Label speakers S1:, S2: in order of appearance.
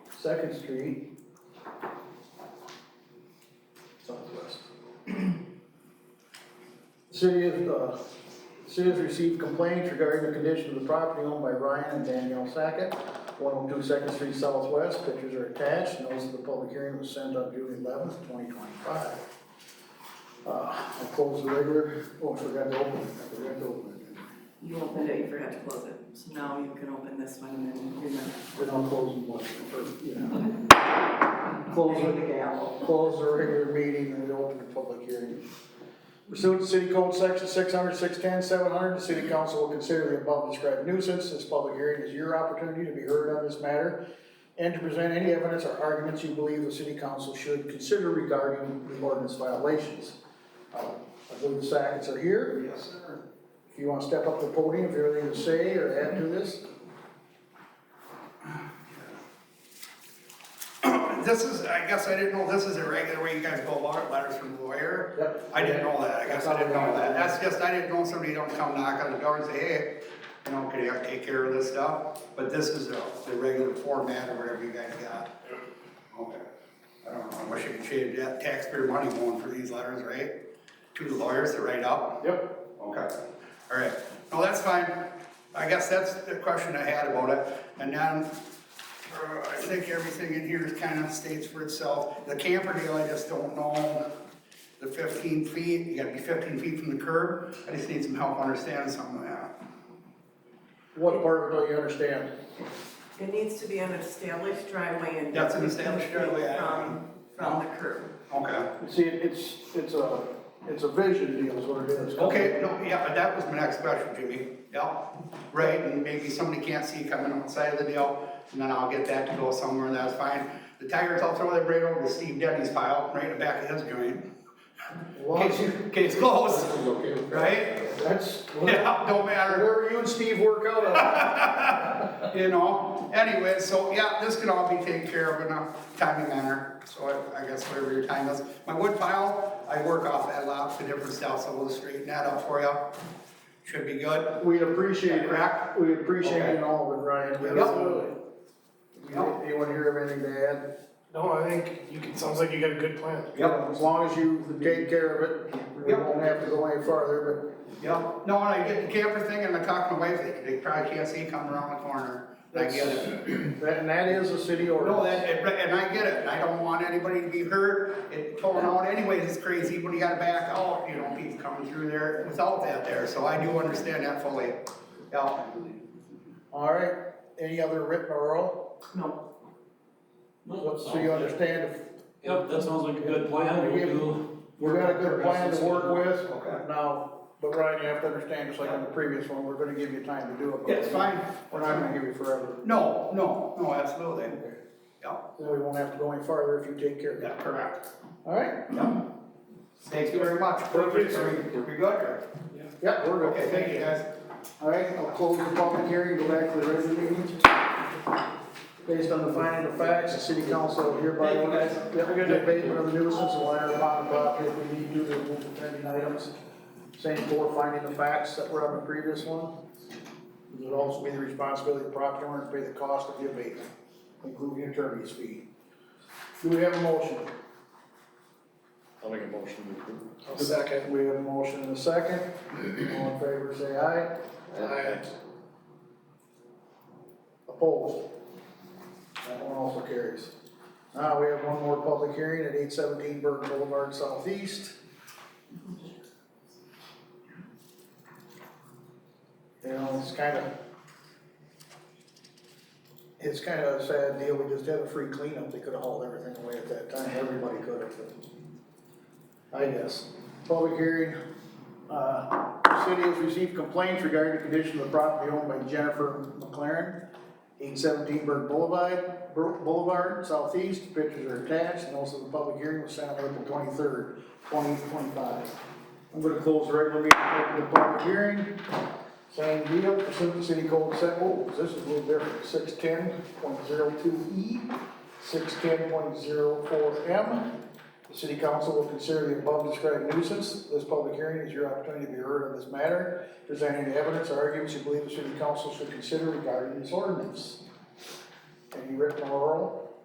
S1: Second Street. Southwest. The City has, uh, the city has received complaints regarding the condition of the property owned by Ryan and Danielle Sackett, one oh two Second Street Southwest, pictures are attached, notice of the public hearing was sent on June eleventh, twenty twenty-five. Uh, I closed the regular, oh, I forgot to open it, I forgot to open it.
S2: You opened it, you forgot to close it, so now you can open this one and then you're not.
S1: Then I'll close the one, or, you know. Close
S2: the
S1: it,
S2: gavel.
S1: close the regular meeting and open the public hearing. Pursuant to City Code Section 600, 610, 700, the city council will consider the above described nuisance. This public hearing is your opportunity to be heard on this matter and to present any evidence or arguments you believe the city council should consider regarding the ordinance violations. Uh, I believe the Sackets are here.
S3: Yes, sir.
S1: If you wanna step up to the podium, if you have anything to say or add to this,
S3: This is, I guess I didn't know, this is a regular way you guys go about it, letters from the lawyer?
S1: Yep.
S3: I didn't know that, I guess I didn't know that, that's just, I didn't know somebody don't come knock on the door and say, hey, you know, could you take care of this stuff? But this is the, the regular format or whatever you guys got. Okay. I don't know, I wish I could change that taxpayer money going for these letters, right? To the lawyers to write up.
S1: Yep.
S3: Okay, all right, no, that's fine, I guess that's the question I had about it, and then, uh, I think everything in here is kind of states for itself, the camper deal, I just don't know, the fifteen feet, you gotta be fifteen feet from the curb, I just need some help understanding some of that.
S1: What part of it do you understand?
S2: It needs to be an established driveway and.
S3: That's an established driveway, I-
S2: From, from the curb.
S3: Okay,
S1: See, it's, it's a, it's a vision deal is what it is.
S3: okay, no, yeah, but that was my next question, Jimmy, yeah, right, and maybe somebody can't see coming outside of the deal, and then I'll get that to go somewhere, and that's fine. The tires, I'll throw that right over to Steve Denny's pile, right in the back of his joint.
S1: Well,
S3: Case, case closed, right?
S1: That's,
S3: Yeah, don't matter,
S1: wherever you and Steve work out on.
S3: you know, anyway, so yeah, this can all be taken care of in a timely manner, so I, I guess whatever your time is. My wood pile, I work off that lot, the different stuff, so we'll straighten that up for you, should be good.
S1: We appreciate
S3: Correct.
S1: it, we appreciate it all, but Ryan, we
S3: Yep.
S1: absolutely. You- Anyone here have anything to add?
S4: No, I think you can, sounds like you got a good plan.
S1: As long as you take care of it, we
S3: Yep.
S1: won't have to go any farther,
S3: Yeah, no, and I get the camper thing, and I talk to my wife, they- they probably can't see coming around the corner, I get it.
S1: but that, and that is a city
S3: No,
S1: ordinance.
S3: that, and and I get it, and I don't want anybody to be hurt, it torn out anyways, it's crazy, but you gotta back out, you know, people coming through there without that there, so I do understand that fully. Yeah,
S1: All right, any other written or oral?
S2: No,
S1: So you understand if
S5: Yep, that sounds like a good plan, we'll do.
S1: We've got a good plan to work with.
S3: Okay.
S1: Now, but Ryan, you have to understand, just like on the previous one, we're gonna give you time to do it. but
S3: it's fine,
S1: We're not gonna give you forever.
S3: no, no, no, absolutely, yeah,
S1: Then we won't have to go any farther if you take care of that.
S3: yeah, correct,
S1: All right?
S3: yeah. Thank you very much.
S1: Perfect.
S3: Are we- are we good?
S1: Yep, we're good.
S3: Okay, thank you guys.
S1: All right, I'll close the public hearing, go back to the regular meeting. Based on the finding of facts, the city council hereby
S3: Thank you, guys.
S1: Yep, the abatement of the nuisance, and enter upon the property if we need to, to remove offending items. Same for finding the facts that were on the previous one. It would also be the responsibility of the property owner to pay the cost of the abatement, including attorney's fee. Do we have a motion?
S6: I'll make a motion to approve.
S1: Second. We have a motion and a second. All in favor, say aye. Opposed? That one also carries. Now, we have one more public hearing at eight seventeen Burke Boulevard Southeast. You know, it's kind of, it's kind of a sad deal, we just had a free cleanup, they could have hauled everything away at that time, everybody could have. I guess. Public hearing, uh, the city has received complaints regarding the condition of the property owned by Jennifer McLaren, eight seventeen Burke Boulevard, Bur- Boulevard Southeast, pictures are attached, and also the public hearing was sent on April twenty-third, twenty twenty-five. I'm gonna close the regular meeting, open the public hearing, same deal, pursuant to city code set, oh, this is a little different, six ten point zero two E, six ten point zero four M, the city council will consider the above described nuisance. This public hearing is your opportunity to be heard on this matter. Presenting the evidence or arguments you believe the city council should consider regarding this ordinance. Any written or oral?